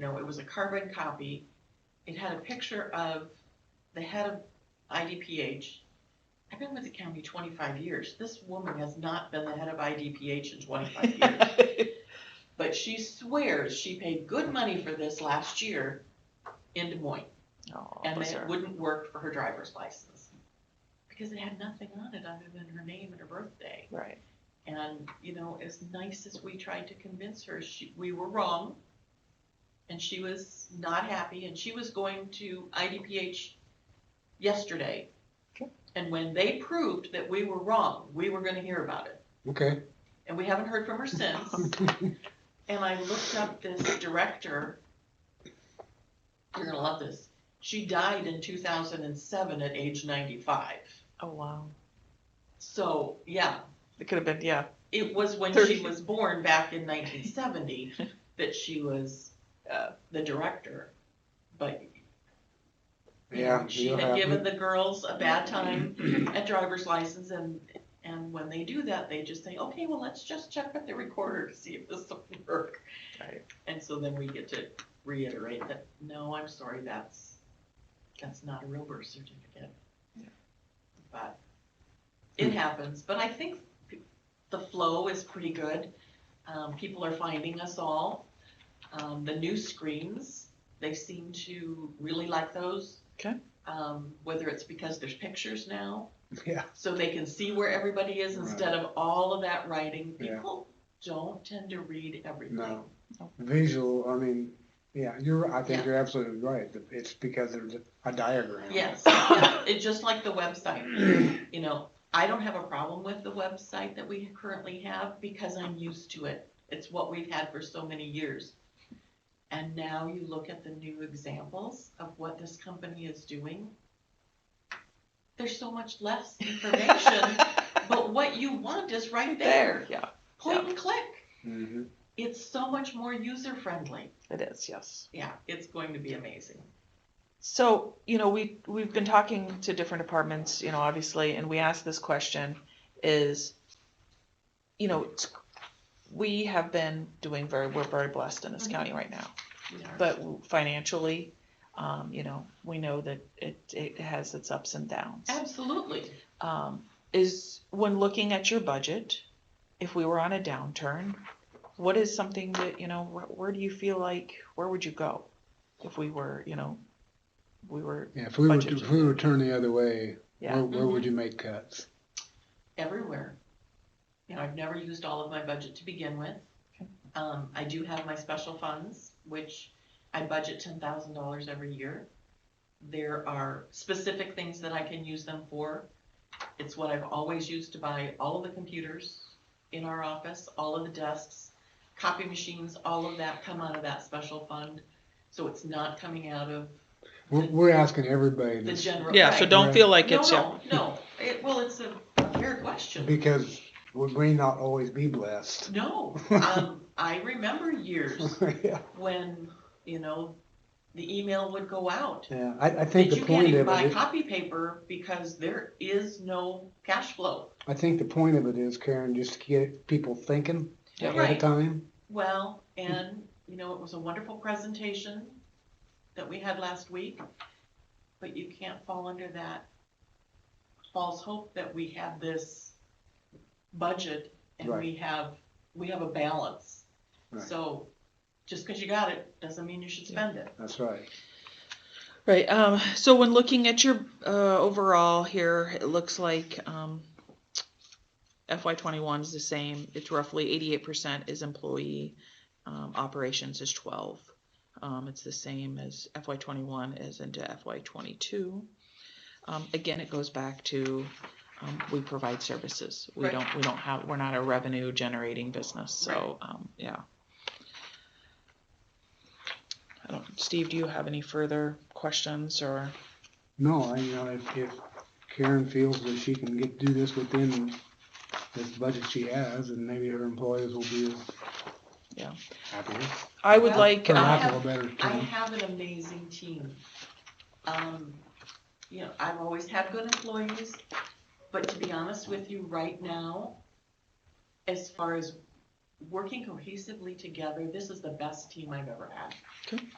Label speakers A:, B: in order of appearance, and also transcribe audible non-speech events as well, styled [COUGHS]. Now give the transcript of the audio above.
A: know, it was a carbon copy. It had a picture of the head of IDPH. I've been with the county twenty-five years. This woman has not been the head of IDPH in twenty-five
B: [LAUGHS]
A: years. But she swears she paid good money for this last year in Des Moines.
B: Oh,
A: And
B: bless her.
A: it wouldn't work for her driver's license. Because it had nothing on it other than her name and her birthday.
B: Right.
A: And, you know, as nice as we tried to convince her, she, we were wrong. And she was not happy and she was going to IDPH yesterday.
B: Okay.
A: And when they proved that we were wrong, we were gonna hear about it.
C: Okay.
A: And we haven't heard from her since. And I looked up this director. You're gonna love this. She died in two thousand and seven at age ninety-five.
B: Oh wow.
A: So, yeah,
B: It could have been yeah.
A: it was when
B: Thirty.
A: she was born back in nineteen seventy that she was, uh, the director. But you know,
C: Yeah.
A: she
C: it'll
A: had given
C: happen.
A: the girls a bad time at driver's license and, and when they do that, they just say, okay, well, let's just check with the recorder to see if this will [LAUGHS] work.
B: Right.
A: And so then we get to reiterate that, no, I'm sorry, that's, that's not a real birth certificate.
B: Yeah.
A: But it happens, but I think the flow is pretty good. Um, people are finding us all. Um, the new screens, they seem to really like those.
B: Okay.
A: Um, whether it's because there's pictures now,
C: [LAUGHS] Yeah.
A: so they can see where everybody is
C: Right.
A: instead of all of that writing.
C: Yeah.
A: People don't tend to read everything.
C: No.
B: Nope.
C: Visual. I mean, yeah. You're. I think
A: Yeah.
C: you're absolutely right. It's because there's a diagram.
A: Yes, yeah, it's just like the website,
C: [COUGHS]
A: you know, I don't have a problem with the website that we currently have because I'm used to it. It's what we've had for so many years. And now you look at the new examples of what this company is doing. There's so much less information,
B: [LAUGHS]
A: but what you want is right there,
B: Yeah.
A: point and click.
C: hmm
A: It's so much more user friendly.
B: It is. Yes.
A: Yeah, it's going to be amazing.
B: So, you know, we, we've been talking to different departments, you know, obviously, and we asked this question is, you know, it's- we have been doing very, we're very blessed in this county right now,
A: We are.
B: but financially, um, you know, we know that it, it has its ups and downs.
A: Absolutely.
B: Um, is when looking at your budget, if we were on a downturn, what is something that, you know, where, where do you feel like, where would you go if we were, you know, we were
C: Yeah. If we were
B: Budget.
C: if we were turn the other way,
B: Yeah.
C: where, where
A: Mm-hmm.
C: would you make cuts?
A: everywhere. You know, I've never used all of my budget to begin with.
B: Okay.
A: Um, I do have my special funds, which I budget ten thousand dollars every year. There are specific things that I can use them for. It's what I've always used to buy all of the computers in our office, all of the desks, copy machines, all of that come out of that special fund. So it's not coming out of
C: We're, we're asking everybody
A: the
C: this
A: general.
B: Yeah, so
A: Right.
B: don't feel like
A: No,
B: it's, yeah,
A: no, no. It, well, it's a fair question.
C: because we may not always be blessed. [LAUGHS]
A: No, um, I remember years
C: yeah.
A: when, you know, the email would go out.
C: Yeah. I, I think
A: That
C: the
A: you can't
C: point
A: even
C: of
A: buy
C: it.
A: copy paper because there is no cash flow.
C: I think the point of it is Karen, just to get people thinking
B: Yeah.
C: ahead
A: Right.
C: of time.
A: Well, and, you know, it was a wonderful presentation that we had last week, but you can't fall under that false hope that we have this budget and
C: Right.
A: we have, we have a balance.
C: Right.
A: So, just because you got it, doesn't mean you should spend it.
C: That's right.
B: right, um, so when looking at your, uh, overall here, it looks like, um, FY twenty-one is the same, it's roughly eighty-eight percent is employee, um, operations is twelve. Um, it's the same as FY twenty-one as into FY twenty-two. Um, again, it goes back to, um, we provide services, we
A: Right.
B: don't, we don't have, we're not a revenue generating business, so, um, yeah. I don't, Steve, do you have any further questions or?
C: No, I, you know, if, if Karen feels that she can get, do this within this budget she has, and maybe her employees will be
B: Yeah.
C: happier,
B: I would
A: Well,
B: like,
C: for
A: I
B: um,
C: lack of
A: have-
C: a better
A: I
C: term.
A: have an amazing team. Um, you know, I've always had good employees, but to be honest with you, right now, as far as working cohesively together, this is the best team I've ever had.
B: Okay.